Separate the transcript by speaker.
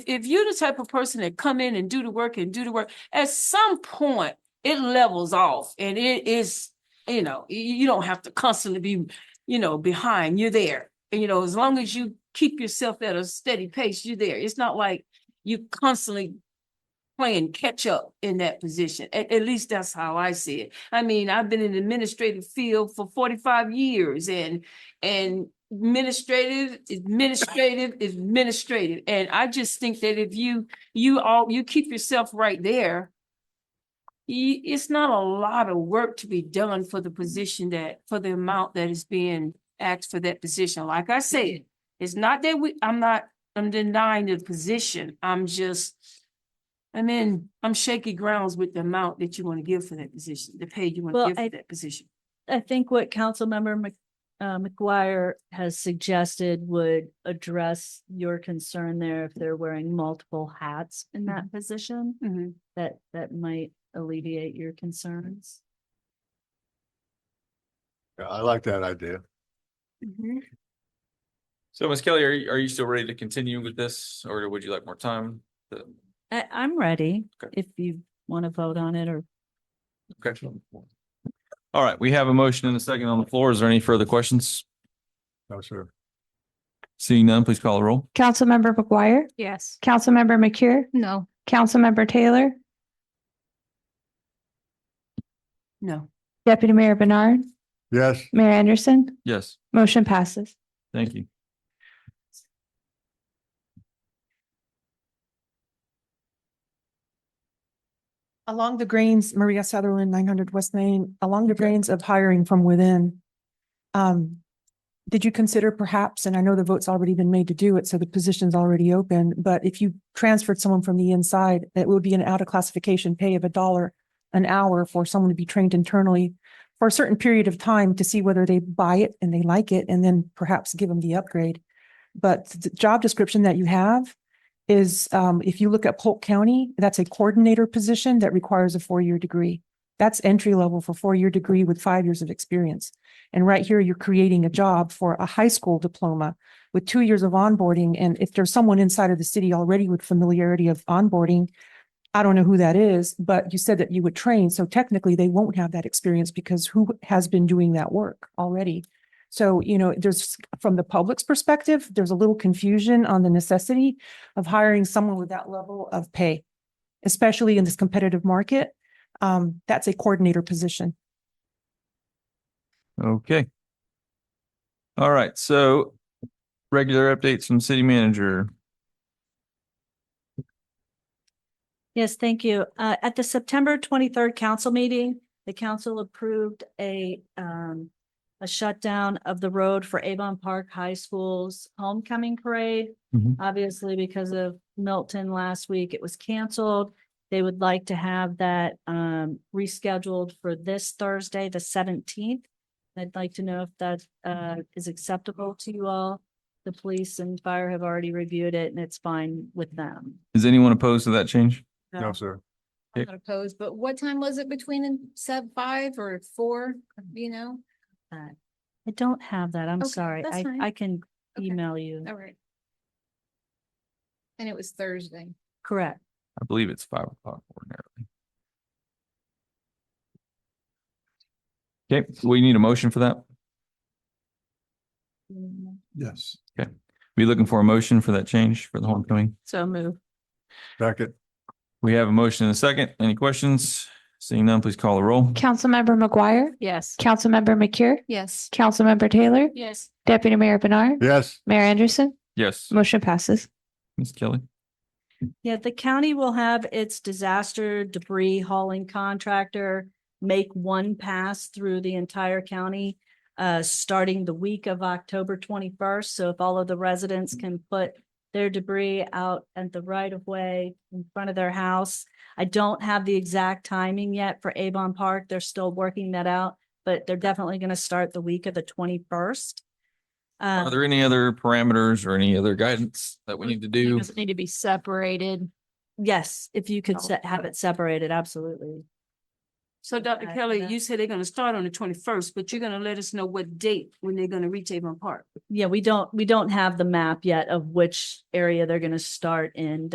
Speaker 1: if you're the type of person that come in and do the work and do the work, at some point it levels off and it is, you know, you, you don't have to constantly be, you know, behind. You're there. And, you know, as long as you keep yourself at a steady pace, you're there. It's not like you constantly playing catch up in that position. At, at least that's how I see it. I mean, I've been in the administrative field for 45 years and and administrative, administrative, administrative. And I just think that if you, you all, you keep yourself right there, you, it's not a lot of work to be done for the position that, for the amount that is being asked for that position. Like I said, it's not that we, I'm not, I'm denying the position. I'm just, I'm in, I'm shaky grounds with the amount that you want to give for that position, the pay you want
Speaker 2: Well,
Speaker 1: to give
Speaker 2: I-
Speaker 1: for that position.
Speaker 2: I think what Councilmember Mc, uh, McGuire has suggested would address your concern there if they're wearing multiple hats in that position,
Speaker 1: Mhm.
Speaker 2: that, that might alleviate your concerns.
Speaker 3: Yeah, I like that idea.
Speaker 4: So Ms. Kelly, are you, are you still ready to continue with this or would you like more time? The-
Speaker 2: I, I'm ready
Speaker 4: Okay.
Speaker 2: if you want to vote on it or
Speaker 4: Okay. All right, we have a motion and a second on the floor. Is there any further questions?
Speaker 3: No, sir.
Speaker 4: Seeing none, please call the roll.
Speaker 5: Councilmember McGuire?
Speaker 6: Yes.
Speaker 5: Councilmember McCure?
Speaker 6: No.
Speaker 5: Councilmember Taylor?
Speaker 1: No.
Speaker 5: Deputy Mayor Bernard?
Speaker 3: Yes,
Speaker 5: Mayor Anderson?
Speaker 4: Yes,
Speaker 5: Motion passes.
Speaker 4: thank you.
Speaker 7: Along the grains, Maria Sutherland, nine hundred West Main, along the grains of hiring from within. Um, did you consider perhaps, and I know the vote's already been made to do it, so the position's already open, but if you transferred someone from the inside, it would be an out of classification pay of a dollar an hour for someone to be trained internally for a certain period of time to see whether they buy it and they like it and then perhaps give them the upgrade. But the job description that you have is um, if you look at Polk County, that's a coordinator position that requires a four-year degree. That's entry level for four-year degree with five years of experience. And right here, you're creating a job for a high school diploma with two years of onboarding. And if there's someone inside of the city already with familiarity of onboarding, I don't know who that is, but you said that you would train. So technically, they won't have that experience because who has been doing that work already? So, you know, there's, from the public's perspective, there's a little confusion on the necessity of hiring someone with that level of pay, especially in this competitive market. Um, that's a coordinator position.
Speaker 4: Okay. All right, so regular updates from city manager.
Speaker 2: Yes, thank you. Uh, at the September twenty-third council meeting, the council approved a, um, a shutdown of the road for Avon Park High School's homecoming parade.
Speaker 4: Mhm.
Speaker 2: Obviously, because of Milton last week, it was canceled. They would like to have that, um, rescheduled for this Thursday, the seventeenth. I'd like to know if that, uh, is acceptable to you all. The police and fire have already reviewed it and it's fine with them.
Speaker 4: Is anyone opposed to that change?
Speaker 3: no, sir.
Speaker 4: Yeah.
Speaker 6: I'm not opposed, but what time was it between and sub five or four, you know?
Speaker 2: that. Uh, I don't have that. I'm
Speaker 6: Okay,
Speaker 2: sorry.
Speaker 6: that's
Speaker 2: I,
Speaker 6: fine.
Speaker 2: I can
Speaker 6: Okay.
Speaker 2: email you.
Speaker 6: All right. And it was Thursday.
Speaker 2: Correct.
Speaker 4: I believe it's five o'clock ordinarily. Okay, we need a motion for that.
Speaker 2: Mm-hmm.
Speaker 3: Yes.
Speaker 4: Be looking for a motion for that change for the homecoming.
Speaker 2: So move.
Speaker 3: Second,
Speaker 4: We have a motion and a second. Any questions? Seeing none, please call the roll.
Speaker 5: Councilmember McGuire?
Speaker 6: Yes.
Speaker 5: Councilmember McCure?
Speaker 6: Yes.
Speaker 5: Councilmember Taylor?
Speaker 1: Yes.
Speaker 5: Deputy Mayor Bernard?
Speaker 3: yes,
Speaker 5: Mayor Anderson?
Speaker 4: Yes,
Speaker 5: Motion passes.
Speaker 4: Ms. Kelly.
Speaker 2: Yeah, the county will have its disaster debris hauling contractor make one pass through the entire county, uh, starting the week of October twenty-first. So if all of the residents can put their debris out at the right of way in front of their house. I don't have the exact timing yet for Avon Park. They're still working that out, but they're definitely going to start the week of the twenty-first. Uh, Um,
Speaker 4: Are there any other parameters or any other guidance that we need to do?
Speaker 6: need to be separated.
Speaker 2: Yes, if you
Speaker 6: Oh,
Speaker 2: could se- have it separated, absolutely.
Speaker 1: So Dr.
Speaker 2: Uh,
Speaker 1: Kelly,
Speaker 2: no.
Speaker 1: you said they're gonna start on the twenty-first, but you're gonna let us know what date when they're gonna reach Avon Park.
Speaker 2: Yeah, we don't, we don't have the map yet of which area they're gonna start in